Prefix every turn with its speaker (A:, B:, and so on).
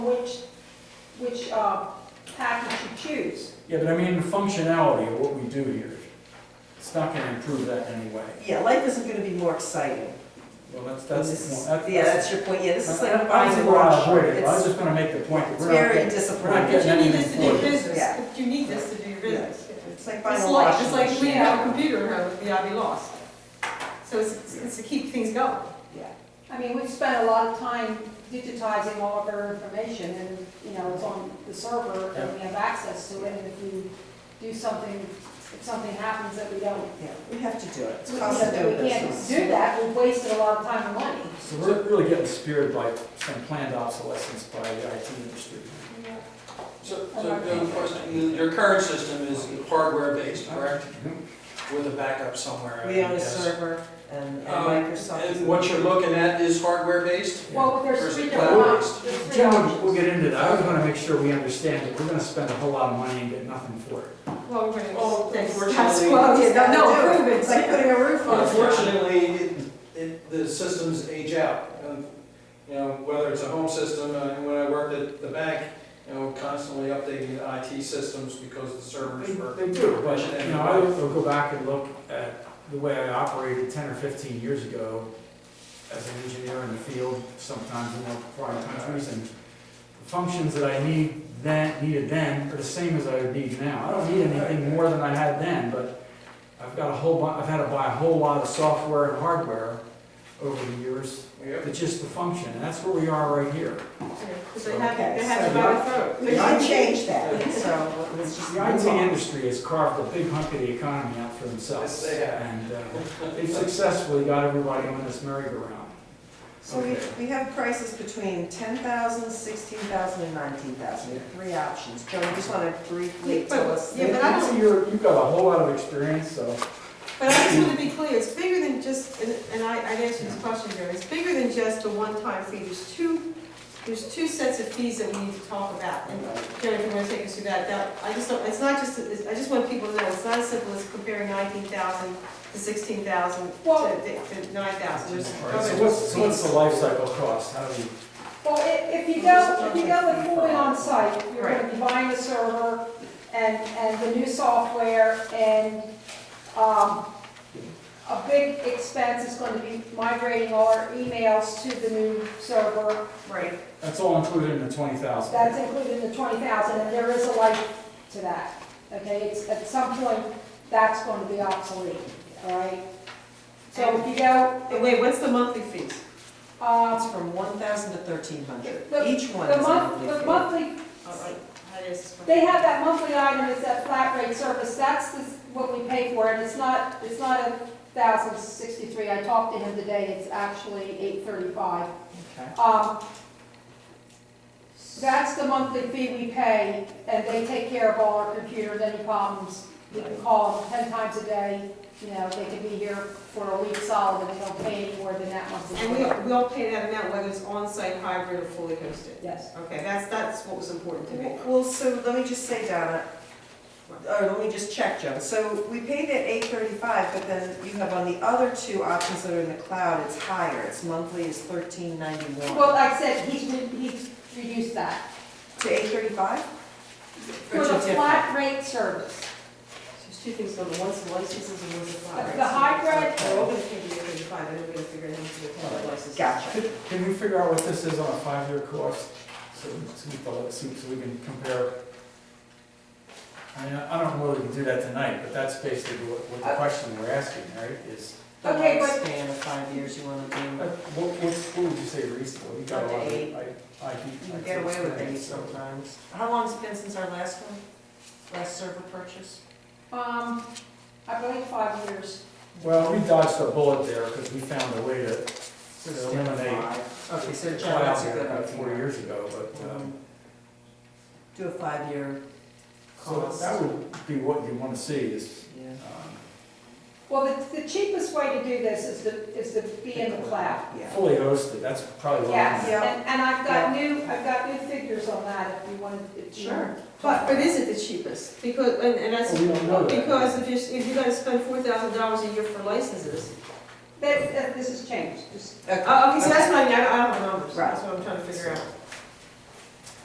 A: which uh, package you choose.
B: Yeah, but I mean, the functionality of what we do here, it's not gonna improve that in any way.
C: Yeah, life isn't gonna be more exciting.
B: Well, that's, that's.
C: This is-
B: no, that-
C: Yeah, that's your point, yeah, this is like
B: I- I- I
C: buying
B: was
C: a
B: gonna
C: watch.
B: avoid it, but I was
C: It's
B: just gonna make the point that
C: it's
B: we're not
C: very
B: getting, we're not getting
C: disappointing.
D: But you need
B: anything
D: this to
B: for
D: do
B: it.
D: business,
C: Yeah.
D: if you need this to do your business.
C: It's like buying
D: It's
C: a
D: like,
C: washing
D: it's
C: machine.
D: like we have a computer, at home, yeah, we lost. So it's, it's to keep things going.
C: Yeah.
A: I mean, we've spent a lot of time digitizing all of our information and, you know, it's on the server and we have access to it. And if you do something, if something happens that we don't,
C: Yeah, we have to do it. It's
A: we
C: cost of doing
A: we can't
C: business.
A: do that, we've wasted a lot of time and money.
B: So we're really getting speared by some planned obsolescence by the IT industry.
E: So, so the question, your current system is hardware-based, correct? With a backup somewhere. I
C: We own a
E: guess.
C: server and and
E: Um,
C: Microsoft. is-
E: And what you're looking at is hardware-based?
A: Well, there's three
E: Versus
A: different options. There's three
B: Gentlemen, we'll
A: options.
B: get into that, I just wanna make sure we understand that we're gonna spend a whole lot of money and get nothing for it.
D: Well, we're gonna.
E: Well,
D: that's-
E: unfortunately-
D: That's what,
C: It's
D: yeah,
C: gotta
D: no,
C: do it.
D: improvements.
C: It's like putting a roof on. it.
E: Unfortunately, it- it, the systems age out. Um, You know, whether it's a home system, uh, when I worked at the bank, you know, constantly updating the IT systems because the servers were.
B: They do, but, you know, I will go back and look at the way I operated ten or fifteen years ago as an engineer in the field, sometimes in foreign countries, and the functions that I need then, needed then are the same as I need now. I don't need anything more than I had then, but I've got a whole, bu- I've had to buy a whole lot of software and hardware over the years,
E: Yep.
B: It's just the function, and that's where we are right here.
D: Because they have,
C: Okay,
D: they have to
C: so
D: buy
C: you-
D: the phone.
C: We can change that, so let's just.
B: The IT
C: move on.
B: industry has carved a big hunk of the economy out for themselves.
E: Yes, they have.
B: And uh, they've successfully got everybody on this merry-go-round.
C: So we,
B: Okay.
C: we have prices between ten thousand, sixteen thousand, and nineteen thousand, three options. Joan, you just wanna briefly
D: Yeah, but-
C: tell us.
D: yeah, but I don't-
B: So You're, you've got a whole lot of experience, so.
D: But I just
B: Mm.
D: want to be clear, it's bigger than just, and and I, I'd answered this question, Gary, it's bigger than just the one-time fee. There's two, there's two sets of fees that we need to talk about. And Gary, if you want to take us through that, that, I just don't, it's not just, it's- I just want people to know, it's not as simple as comparing nineteen thousand to sixteen thousand to,
A: Well-
D: to nine thousand. There's
B: All right,
D: other
B: so what's, so what's the
D: fees.
B: life cycle cost? How do we?
A: Well, if, if you go, if you go with fully on-site, you're gonna
D: Right.
A: be buying the server and, and the new software and, um, a big expense is gonna be migrating all our emails to the new server.
D: Right.
B: That's all included in the twenty thousand.
A: That's included in the twenty thousand, and there is a life to that, okay? It's, at some point, that's gonna be obsolete, all right? So if you go,
D: And wait, what's the monthly fees?
A: uh,
C: It's from one thousand to thirteen hundred.
A: The-
C: Each one
A: the
C: is a
A: month, the
C: monthly
A: monthly
D: Oh, I- I- I just-
A: They have that monthly item, it's that flat rate service, that's the- what we pay for, and it's not, it's not a thousand sixty-three, I talked to him today, it's actually eight thirty-five.
C: fee. Okay.
A: Um, that's the monthly fee we pay, and they take care of all our computers, any problems, we can call them ten times a day, you know, they can be here for a week solid, and they don't pay any more than that monthly
D: And
A: fee.
D: we, we'll pay that amount whether it's on-site, hybrid, or fully hosted.
A: Yes,
D: Okay, that's, that's what was important to me.
C: Well, so let me just say, Donna, or let me just check, Joan. So we paid that eight thirty-five, but then you have on the other two options that are in the cloud, it's higher. It's monthly is thirteen
A: well,
C: ninety-one.
A: like I said, he, he reduced that,
C: To eight thirty-five?
A: for the flat rate service.
D: There's two things going on, one's the licenses and one's
A: The-
D: the flat
A: the hybrid-
D: They're all gonna pay the eight thirty-five, and we're gonna figure out how much the total license.
C: Gotcha.
B: Can we figure out what this is on a five-year course? So, so we follow it, so so we can compare. I mean, I I don't know whether we can do that tonight, but that's basically what, what the question we're asking, right, is,
C: The
A: Okay, but-
C: lifespan of five years you wanna
B: uh,
C: do.
B: what, what's, what would you say reasonable? You got a lot of,
C: Eight.
B: I, I.
C: You can get away with things sometimes. How long's it been since our last one? Last server purchase?
A: Um, I believe five years.
B: Well, we dodged a bullet there because we found a way to So
C: So it's down to
B: eliminate
C: five. Okay, so John,
B: cloud
C: that's a
B: there
C: good
B: about four
C: idea.
B: years ago, but, um,
C: Um, Do a five-year
B: so
C: Mm-hmm. cost.
B: that would be what you want to see is,
C: Yeah.
B: um,
A: Well, the, the cheapest way to do this is to, is to be in the cloud.
C: Yeah.
B: fully hosted, that's probably what I'm.
A: Yes,
C: Yeah.
A: and, and I've got new, I've got new figures on that if you wanted, if you.
C: Sure.
D: But, but is it the cheapest? Because, and, and that's,
B: Well, we don't know that.
D: because if you're, if you're gonna spend four thousand dollars a year for licenses.
A: That, that- this has changed, just,
C: Okay. Uh,
D: Oh, okay, so that's what I mean, I I don't have numbers, that's
C: Right.
D: what I'm trying to figure out.